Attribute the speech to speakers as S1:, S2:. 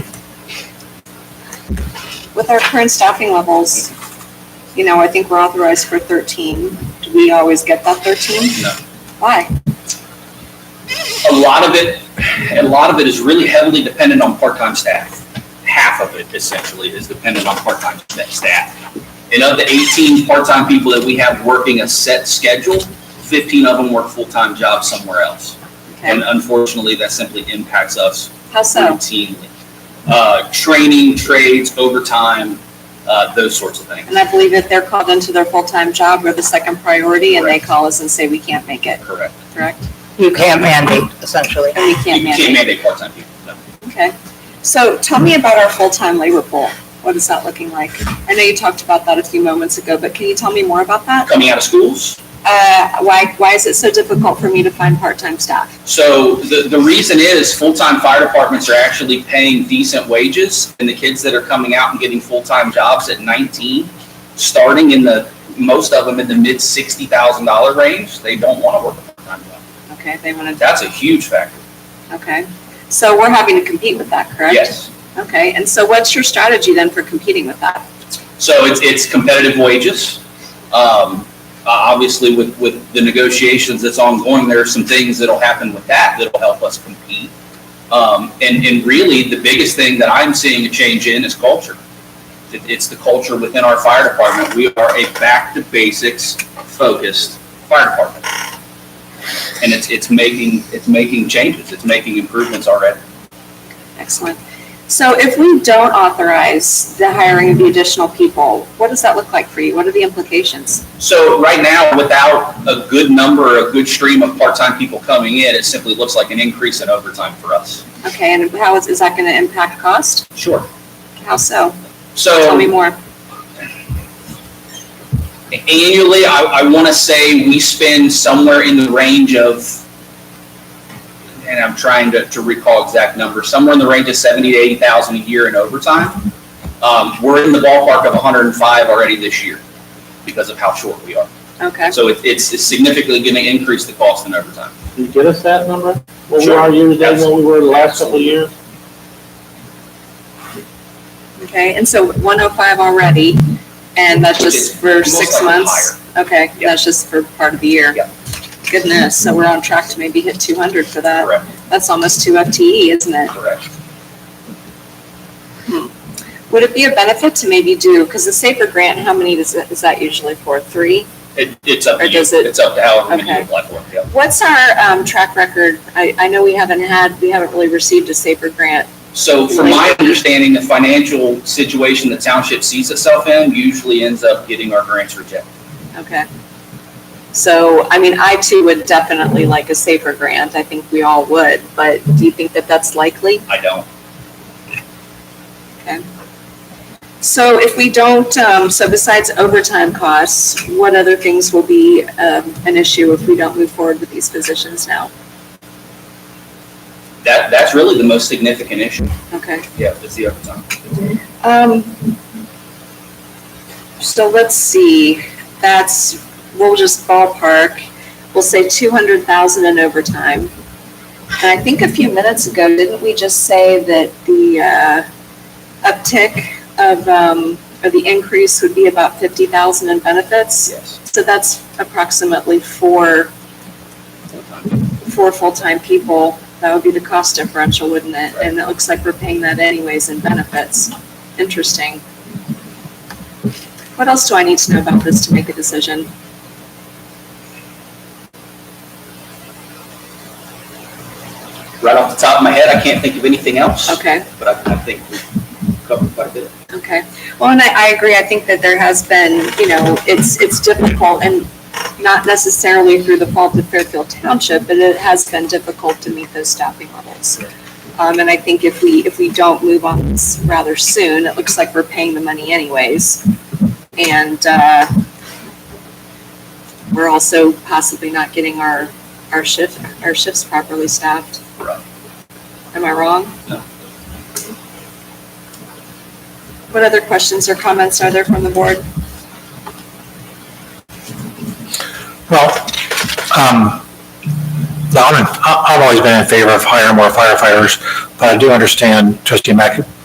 S1: With our current staffing levels, you know, I think we're authorized for thirteen. Do we always get that thirteen?
S2: No.
S1: Why?
S2: A lot of it, a lot of it is really heavily dependent on part-time staff. Half of it essentially is dependent on part-time sta- staff. And of the 18 part-time people that we have working a set schedule, 15 of them work full-time jobs somewhere else. And
S1: Okay,
S2: unfortunately, that simply impacts us
S1: how so?
S2: routinely. Uh, Training, trades, overtime, uh, those sorts of things.
S1: And I believe if they're called into their full-time job, we're the second priority and they
S2: Correct.
S1: call us and say, we can't make it,
S2: Correct.
S1: correct?
S3: You can't mandate, essentially.
S1: And we can't
S2: You can't
S1: manage.
S2: mandate part-time people, no.
S1: Okay. So tell me about our full-time labor pool. What is that looking like? I know you talked about that a few moments ago, but can you tell me more about that?
S2: Coming out of schools,
S1: Uh, why, why is it so difficult for me to find part-time staff?
S2: So the, the reason is full-time fire departments are actually paying decent wages and the kids that are coming out and getting full-time jobs at nineteen, starting in the, most of them in the mid sixty thousand dollar range, they don't want to work a part-time job.
S1: Okay, they want to,
S2: That's a huge factor.
S1: okay. So we're having to compete with that, correct?
S2: Yes.
S1: Okay, and so what's your strategy then for competing with that?
S2: So it's, it's competitive wages. Um, uh, obviously with, with the negotiations that's ongoing, there are some things that'll happen with that that'll help us compete. Um, and, and really the biggest thing that I'm seeing a change in is culture. It, it's the culture within our fire department. We are a back to basics focused fire department. And it's, it's making, it's making changes. It's making improvements already.
S1: Excellent. So if we don't authorize the hiring of the additional people, what does that look like for you? What are the implications?
S2: So right now, without a good number, a good stream of part-time people coming in, it simply looks like an increase in overtime for us.
S1: Okay, and how is, is that going to impact cost?
S2: Sure.
S1: How so? Tell
S2: So
S1: me more.
S2: annually, I, I want to say we spend somewhere in the range of, and I'm trying to, to recall exact numbers, somewhere in the range of seventy to eighty thousand a year in overtime. Um, we're in the ballpark of hundred and five already this year because of how short we are.
S1: Okay,
S2: So it, it's it's significantly going to increase the cost in overtime.
S4: Can you get us that number? What we
S2: Sure.
S4: are year to date, what we were the last couple of years?
S1: okay, and so 105 already, and that's just for
S2: Most
S1: six
S2: likely
S1: months? Okay,
S2: Yeah.
S1: that's just for part of the year?
S2: Yeah.
S1: Goodness, so we're on track to maybe hit 200 for that.
S2: Correct,
S1: That's almost two FTE, isn't it?
S2: correct.
S1: Would it be a benefit to maybe do, because the SAFER grant, how many does, it- is that usually for? Three?
S2: It, it's up
S1: Or
S2: to you.
S1: does it-
S2: It's up to however many
S1: Okay.
S2: you apply for, yeah.
S1: What's our um, track record? I, I know we haven't had, we haven't really received a SAFER grant.
S2: So from my understanding, the financial situation the township sees itself in usually ends up getting our grants rejected.
S1: Okay. So, I mean, I too would definitely like a SAFER grant. I think we all would, but do you think that that's likely?
S2: I don't.
S1: So if we don't, um, so besides overtime costs, what other things will be, um, an issue if we don't move forward with these positions now?
S2: That, that's really the most significant issue.
S1: Okay.
S2: Yeah, it's the overtime.
S1: Um, so let's see, that's, we'll just ballpark, we'll say two hundred thousand in overtime. And I think a few minutes ago, didn't we just say that the, uh, uptick of, um, or the increase would be about fifty thousand in benefits?
S2: Yes.
S1: So that's approximately four, four full-time people. That would be the cost differential, wouldn't it? And it looks like we're paying that anyways in benefits. Interesting. What else do I need to know about this to make a decision?
S2: Right off the top of my head, I can't think of anything else,
S1: Okay.
S2: but I, I think we've covered quite a bit.
S1: Okay, well, and I, I agree, I think that there has been, you know, it's, it's difficult, and not necessarily through the fault of Fairfield Township, but it has been difficult to meet those staffing levels. Um, and I think if we, if we don't move on this rather soon, it looks like we're paying the money anyways. And, uh, we're also possibly not getting our, our shift, our shifts properly staffed.
S2: Right.
S1: Am I wrong?
S2: No.
S1: What other questions or comments are there from the board?
S5: Well, um, no, I'm in- I- I've always been in favor of hiring more firefighters, but I do understand trustee Mac,